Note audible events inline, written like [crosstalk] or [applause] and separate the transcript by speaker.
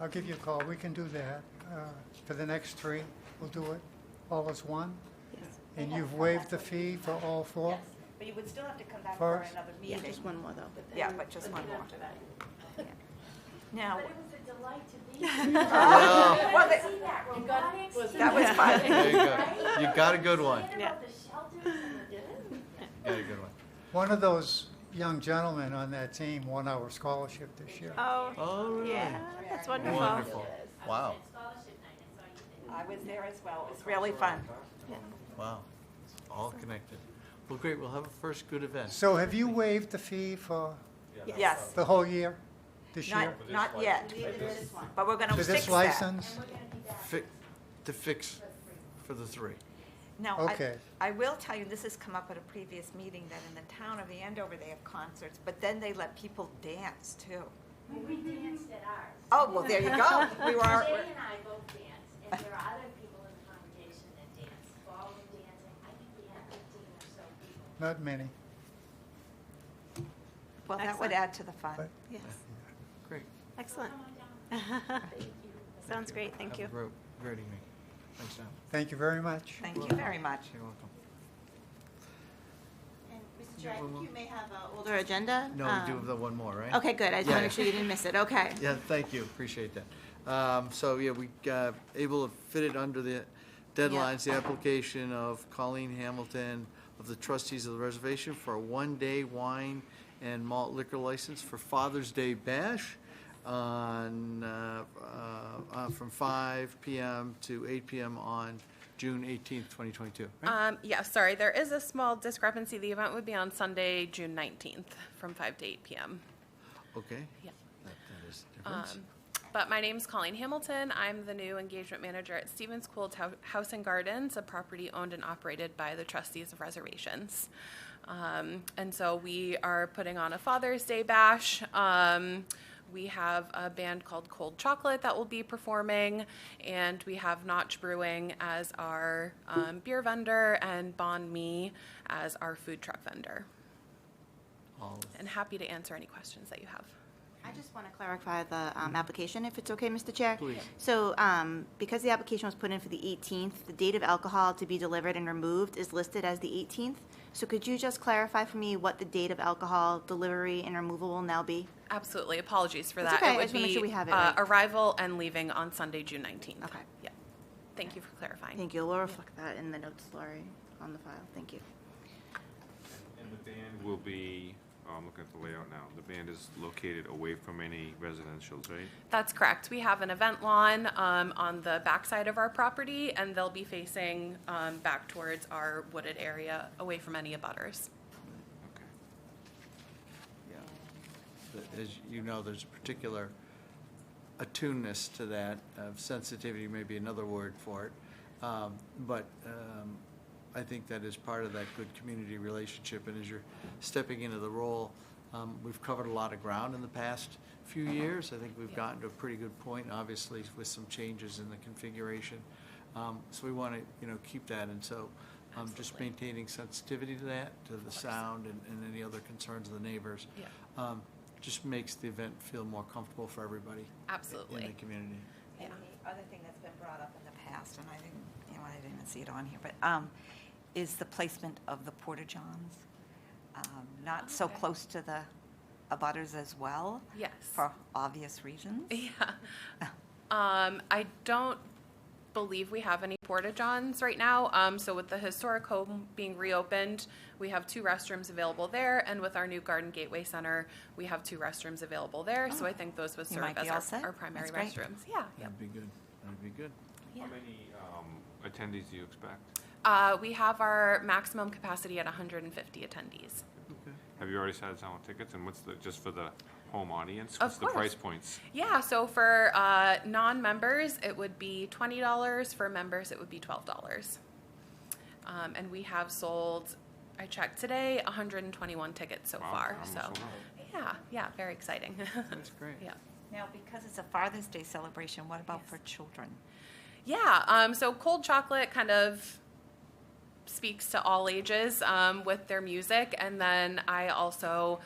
Speaker 1: I'll give you a call. We can do that uh, for the next three. We'll do it all as one.
Speaker 2: Yes.
Speaker 1: And you've waived the fee for all four?
Speaker 3: Yes, but you would still have to come back for
Speaker 1: First.
Speaker 3: another
Speaker 2: Yeah,
Speaker 3: meeting.
Speaker 2: just one more though.
Speaker 3: Yeah, but just one more. [laughs] Now,
Speaker 4: But it was a delight to be here.
Speaker 3: Well, they-
Speaker 4: to see that robotics.
Speaker 5: was-
Speaker 3: that was
Speaker 4: [laughs]
Speaker 3: fun.
Speaker 6: There you go. You got a good one.
Speaker 4: Right?
Speaker 2: Yeah.
Speaker 4: About the shelters and the
Speaker 6: You got a good one.
Speaker 1: One of those young gentlemen on that team won our scholarship this year.
Speaker 2: Oh,
Speaker 6: Oh, really?
Speaker 2: yeah, that's wonderful.
Speaker 6: Wonderful. Wow,
Speaker 4: scholarship night, I saw you there.
Speaker 3: I was there as well. It was really fun.
Speaker 6: wow. It's All connected. Well, great, we'll have a first good event.
Speaker 1: So have you waived the fee for
Speaker 3: Yes,
Speaker 1: the whole year, this year?
Speaker 3: not, not yet. But we're going
Speaker 1: For
Speaker 3: to fix
Speaker 1: this
Speaker 3: that.
Speaker 1: license?
Speaker 6: Fi- To fix for the three.
Speaker 3: Now, I,
Speaker 1: Okay.
Speaker 3: I will tell you, this has come up at a previous meeting, that in the town of Andover, they have concerts, but then they let people dance too.
Speaker 4: Well, we danced at ours.
Speaker 3: Oh, well, there you [laughs] go. We were,
Speaker 4: Jay and I both danced, and there are other people in the congregation that dance, ballroom dancing. I think we had fifteen or so people.
Speaker 1: Not many.
Speaker 3: well, that would
Speaker 2: Excellent.
Speaker 3: add to the fun.
Speaker 2: Yes,
Speaker 6: Great.
Speaker 2: excellent.
Speaker 4: Come on down.
Speaker 2: [laughs] Sounds great, thank
Speaker 6: Have a
Speaker 2: you.
Speaker 6: great- Great evening. Thanks, Sam.
Speaker 1: Thank you very much.
Speaker 3: Thank you very much.
Speaker 6: You're welcome.
Speaker 2: And, Mr. Chair, I think you may have an older agenda.
Speaker 6: No, we do have the one more, right?
Speaker 2: Um, Okay, good, I just want
Speaker 6: Yeah.
Speaker 2: to make sure you didn't miss it, okay.
Speaker 6: Yeah, thank you, appreciate that. Um, So, yeah, we uh, able to fit it under the deadlines, the application of Colleen Hamilton of the trustees of the reservation for a one-day wine and malt liquor license for Father's Day Bash on, uh, uh, uh, from 5 PM to 8 PM on June 18th, 2022. right?
Speaker 5: Um, yeah, sorry, there is a small discrepancy. The event would be on Sunday, June nineteenth, from five to eight PM.
Speaker 6: Okay?
Speaker 5: Yeah. Um,
Speaker 6: That that is a difference.
Speaker 5: But my name's Colleen Hamilton. I'm the new engagement manager at Stevens Cool Tou- House and Gardens, a property owned and operated by the trustees of reservations. Um, and so we are putting on a Father's Day bash. Um, we have a band called Cold Chocolate that will be performing, and we have Notch Brewing as our um, beer vendor and Bon Me as our food truck vendor.
Speaker 6: All of
Speaker 5: And happy to answer any questions that you have.
Speaker 2: I just want to clarify the um, application, if it's okay, Mr. Chair.
Speaker 6: Please.
Speaker 2: So um, because the application was put in for the 18th, the date of alcohol to be delivered and removed is listed as the 18th. So could you just clarify for me what the date of alcohol delivery and removal will now be?
Speaker 5: Absolutely. Apologies for
Speaker 2: It's
Speaker 5: that.
Speaker 2: okay. I
Speaker 5: It would
Speaker 2: just wanna make
Speaker 5: be
Speaker 2: sure we have it
Speaker 5: uh,
Speaker 2: right.
Speaker 5: arrival and leaving on Sunday, June 19th.
Speaker 2: Okay.
Speaker 5: Yeah. Thank you for clarifying.
Speaker 2: Thank you. We'll reflect that in the notes, Lori, on the file. Thank you.
Speaker 7: And the band will be, oh, I'm looking at the layout now, the band is located away from any residentials, right?
Speaker 5: That's correct. We have an event lawn um, on the backside of our property, and they'll be facing um, back towards our wooded area, away from any abutters.
Speaker 7: Okay.
Speaker 6: Yeah. But As you know, there's a particular attuneness to that, of sensitivity may be another word for it. Um, But um, I think that is part of that good community relationship, and as you're stepping into the role, um, we've covered a lot of ground in the past few years. I think we've gotten to a pretty good point, obviously, with some changes in the configuration. Um, So we want to, you know, keep that, and so um, just
Speaker 5: Absolutely.
Speaker 6: maintaining sensitivity to that, to the sound and and any other concerns of the neighbors
Speaker 5: Yeah.
Speaker 6: um, just makes the event feel more comfortable for everybody. In
Speaker 5: Absolutely.
Speaker 6: the community.
Speaker 3: And the other thing that's been brought up in the past, and I didn't, you know, I didn't even see it on here, but, um, is the placement of the porta johns, um, not so
Speaker 5: Okay.
Speaker 3: close to the abutters as well,
Speaker 5: Yes.
Speaker 3: for obvious reasons.
Speaker 5: Yeah. Um, I don't believe we have any porta johns right now. Um, so with the historic home being reopened, we have two restrooms available there, and with our new Garden Gateway Center, we have two restrooms available there. So I think those would
Speaker 3: Oh, You
Speaker 5: serve
Speaker 3: might be all
Speaker 5: as our,
Speaker 3: set.
Speaker 5: our primary
Speaker 3: That's great.
Speaker 5: restrooms. Yeah. yeah.
Speaker 6: That'd be good. That'd be good.
Speaker 5: Yeah.
Speaker 7: How many um, attendees do you expect?
Speaker 5: Uh, we have our maximum capacity at 150 attendees.
Speaker 6: Okay.
Speaker 7: Have you already started selling tickets, and what's the, just for the home audience?
Speaker 5: Of
Speaker 7: What's the price
Speaker 5: course.
Speaker 7: points?
Speaker 5: Yeah. So for uh, non-members, it would be twenty dollars. For members, it would be twelve dollars. Um, and we have sold, I checked today, one hundred and twenty-one tickets so
Speaker 7: Wow,
Speaker 5: far.
Speaker 7: almost
Speaker 5: So,
Speaker 7: sold out.
Speaker 5: yeah, yeah, very exciting.
Speaker 6: That's great.
Speaker 5: yeah.
Speaker 3: Now, because it's a Father's Day celebration, what about for children?
Speaker 5: Yeah. Um, so cold chocolate kind of speaks to all ages um, with their music, and then I also